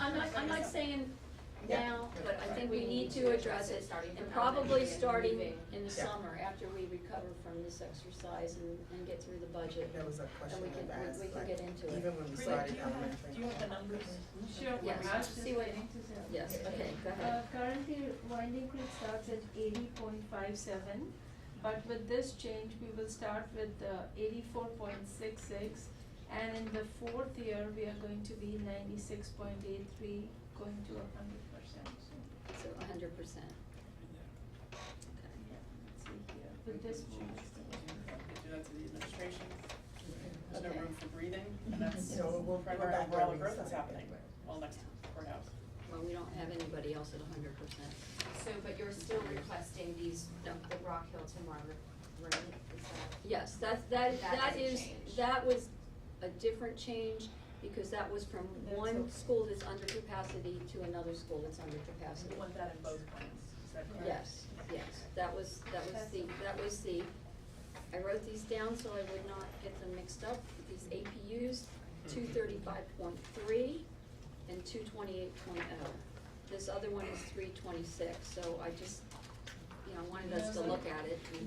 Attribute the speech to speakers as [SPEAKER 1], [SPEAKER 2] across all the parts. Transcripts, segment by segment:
[SPEAKER 1] I'm not, I'm not saying now, but I think we need to address it,
[SPEAKER 2] starting from
[SPEAKER 1] and
[SPEAKER 2] now and
[SPEAKER 1] probably
[SPEAKER 2] moving-
[SPEAKER 1] starting
[SPEAKER 2] moving.
[SPEAKER 1] in the
[SPEAKER 3] Yeah.
[SPEAKER 1] summer, after we recover from this exercise and, and get through the budget.
[SPEAKER 3] That was a question
[SPEAKER 1] we can-
[SPEAKER 3] I've
[SPEAKER 1] we-
[SPEAKER 3] asked,
[SPEAKER 1] we can
[SPEAKER 3] like,
[SPEAKER 1] get into it.
[SPEAKER 3] even when we
[SPEAKER 4] Wait,
[SPEAKER 3] started
[SPEAKER 4] do you have-
[SPEAKER 3] elementary.
[SPEAKER 4] do you have the numbers?
[SPEAKER 5] Sure, what
[SPEAKER 1] Yes,
[SPEAKER 5] I was just
[SPEAKER 1] see what-
[SPEAKER 5] getting to that.
[SPEAKER 1] Yes, okay, go
[SPEAKER 5] Uh,
[SPEAKER 1] ahead.
[SPEAKER 5] currently, winding creek starts at eighty point five seven, but with this change, we will start with uh, eighty-four point six six. And in the fourth year, we are going to be ninety-six point eight three, going to a hundred percent, so,
[SPEAKER 1] So a hundred percent.
[SPEAKER 5] yeah, let's see here, with this change.
[SPEAKER 4] They do that to the administration, there's no
[SPEAKER 1] Okay.
[SPEAKER 4] room for breathing, and that's
[SPEAKER 3] Mm-hmm. So we'll- we'll
[SPEAKER 4] right
[SPEAKER 3] go
[SPEAKER 4] where
[SPEAKER 3] back
[SPEAKER 4] where all
[SPEAKER 3] where we
[SPEAKER 4] the growth is
[SPEAKER 3] started.
[SPEAKER 4] happening, all next to courthouse.
[SPEAKER 1] Well, we don't have anybody else at a hundred percent.
[SPEAKER 2] So, but you're still requesting these,
[SPEAKER 1] No.
[SPEAKER 2] the Rock Hill to Margaret, right? Is that-
[SPEAKER 1] Yes, that's, that,
[SPEAKER 2] That
[SPEAKER 1] that
[SPEAKER 2] is a
[SPEAKER 1] is,
[SPEAKER 2] change.
[SPEAKER 1] that was a different change, because that was from
[SPEAKER 5] That's
[SPEAKER 1] one
[SPEAKER 5] okay.
[SPEAKER 1] school that's under capacity to another school that's under capacity.
[SPEAKER 4] We want that in both plans, is that correct?
[SPEAKER 1] Yes, yes, that was, that was the, that was the, I wrote these down so I would not get them mixed up, these APUs, two thirty-five point three and two twenty-eight oh. This other one is three twenty-six, so I just, you know, I wanted us to look at it. and We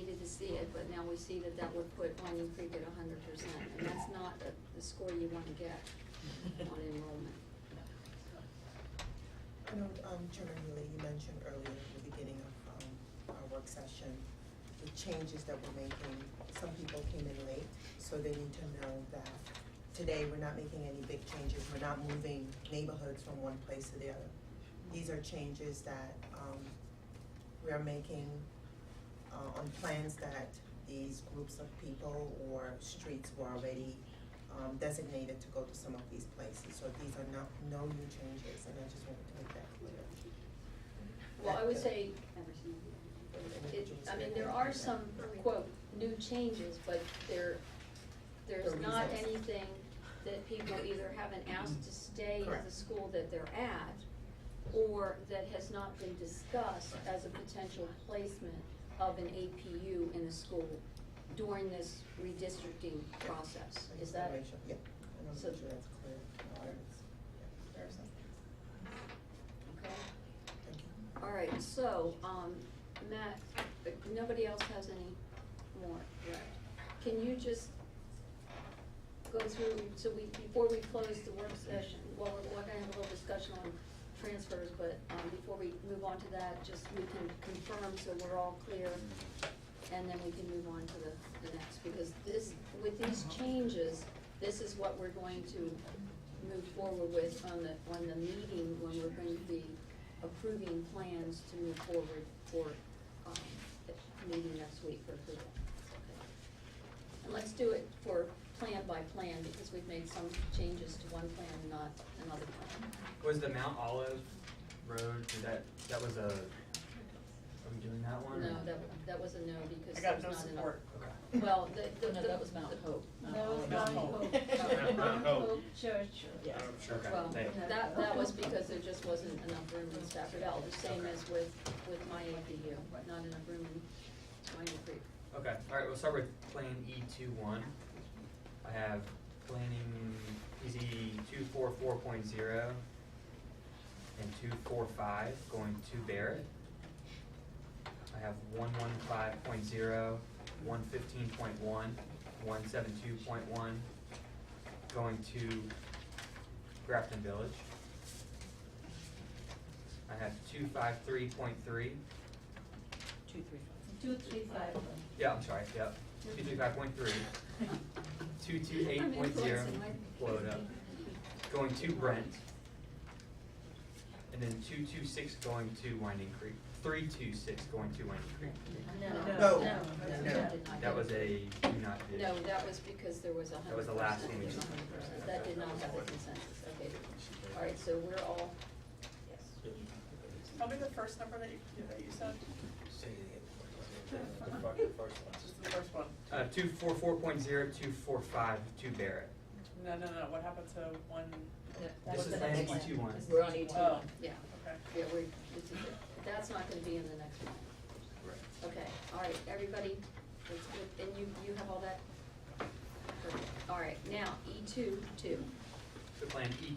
[SPEAKER 1] needed to see it, but now we see that that would put Onion Creek at hundred percent, and that's not the, the score you wanna get on enrollment.
[SPEAKER 3] I know, um, Chairman Healy, you mentioned earlier at the beginning of, um, our work session, the changes that we're making, some people came in late, so they need to know that today we're not making any big changes, we're not moving neighborhoods from one place to the other. These are changes that, um, we are making, uh, on plans that these groups of people or streets were already, um, designated to go to some of these places, so these are not, no new changes, and I just wanted to make that clear.
[SPEAKER 1] Well, I would
[SPEAKER 3] That-
[SPEAKER 1] say, it, I mean, there are some, quote, new changes, but there, there's
[SPEAKER 3] The
[SPEAKER 1] not
[SPEAKER 3] reasons.
[SPEAKER 1] anything that people either haven't asked to stay at the
[SPEAKER 3] Correct.
[SPEAKER 1] school that they're at, or that has not been discussed as a potential placement of an APU in a school during this redistricting process,
[SPEAKER 3] I
[SPEAKER 1] is
[SPEAKER 3] just
[SPEAKER 1] that?
[SPEAKER 3] wanna make sure- Yeah, I want to
[SPEAKER 1] so-
[SPEAKER 3] make sure that's clear. No, I- yeah, There are some,
[SPEAKER 1] Okay.
[SPEAKER 3] thank you.
[SPEAKER 1] All right, so, um, Matt, uh, nobody else has any more, right? Can you just go through, so we, before we close the work session, well, we're, we're gonna have a little discussion on transfers, but, um, before we move on to that, just we can confirm so we're all clear, and then we can move on to the, the next, because this, with these
[SPEAKER 4] Uh-huh.
[SPEAKER 1] changes, this is what we're going to move forward with on the, on the meeting when we're going to be approving plans to move forward for, um, the meeting next week for approval. And let's do it for plan by plan, because we've made some changes to one plan, not another plan.
[SPEAKER 6] Was the Mount Olive Road, did that, that was a, are we doing that one? or-
[SPEAKER 1] No, that, that was a no, because
[SPEAKER 4] I
[SPEAKER 1] there
[SPEAKER 4] got
[SPEAKER 1] was
[SPEAKER 4] no
[SPEAKER 1] not enough.
[SPEAKER 4] support.
[SPEAKER 6] Okay.
[SPEAKER 1] Well, the, the,
[SPEAKER 2] No,
[SPEAKER 1] the-
[SPEAKER 2] that was Mount
[SPEAKER 1] the-
[SPEAKER 2] Hope.
[SPEAKER 5] That was
[SPEAKER 4] Mount
[SPEAKER 5] Mount
[SPEAKER 4] Hope.
[SPEAKER 5] Hope,
[SPEAKER 4] Mount
[SPEAKER 5] Mount
[SPEAKER 7] Hope.
[SPEAKER 5] Hope Church.
[SPEAKER 3] Yeah.
[SPEAKER 6] Okay,
[SPEAKER 1] Well,
[SPEAKER 6] thank you.
[SPEAKER 1] that, that was because there just wasn't enough room in Stafford L, the same as with, with my APU, not enough room in Minor Creek.
[SPEAKER 6] Okay, alright, we'll start with Plan E two one. I have planning PZ two four four point zero and two four five going to Barrett. I have one one five point zero, one fifteen point one, one seven two point one going to Grafton Village. I have two five three point three,
[SPEAKER 1] Two, three, five.
[SPEAKER 5] Two, three, five.
[SPEAKER 6] yeah, I'm sorry, yep, two two five point three, two two
[SPEAKER 1] I'm
[SPEAKER 6] eight point zero,
[SPEAKER 1] influencing my-
[SPEAKER 6] blow it up. Going to Brent. And then two two six going to Winding Creek, three two six going to Winding Creek.
[SPEAKER 3] No.
[SPEAKER 5] No, no,
[SPEAKER 3] No.
[SPEAKER 5] no.
[SPEAKER 6] That was a do not bid.
[SPEAKER 1] No, that was because there was a hundred percent.
[SPEAKER 6] That was the last one we did.
[SPEAKER 1] That did not have a consensus, okay. All right, so we're all, yes.
[SPEAKER 4] Tell me the first number that you, that you said,
[SPEAKER 7] The fucking first one.
[SPEAKER 4] just the first one.
[SPEAKER 6] Uh, two four four point zero, two four five to Barrett.
[SPEAKER 4] No, no, no, what happened to one?
[SPEAKER 2] That
[SPEAKER 6] This
[SPEAKER 2] was
[SPEAKER 6] is
[SPEAKER 2] the
[SPEAKER 6] Plan E
[SPEAKER 2] next one.
[SPEAKER 6] two one.
[SPEAKER 2] We're on E two.
[SPEAKER 4] Oh,
[SPEAKER 1] Yeah,
[SPEAKER 4] okay.
[SPEAKER 1] yeah, we're, it's, that's not gonna be in the next one. Okay, all right, everybody, that's good. and you, you have all that? Perfect. All right, now, E two, two.
[SPEAKER 6] So Plan E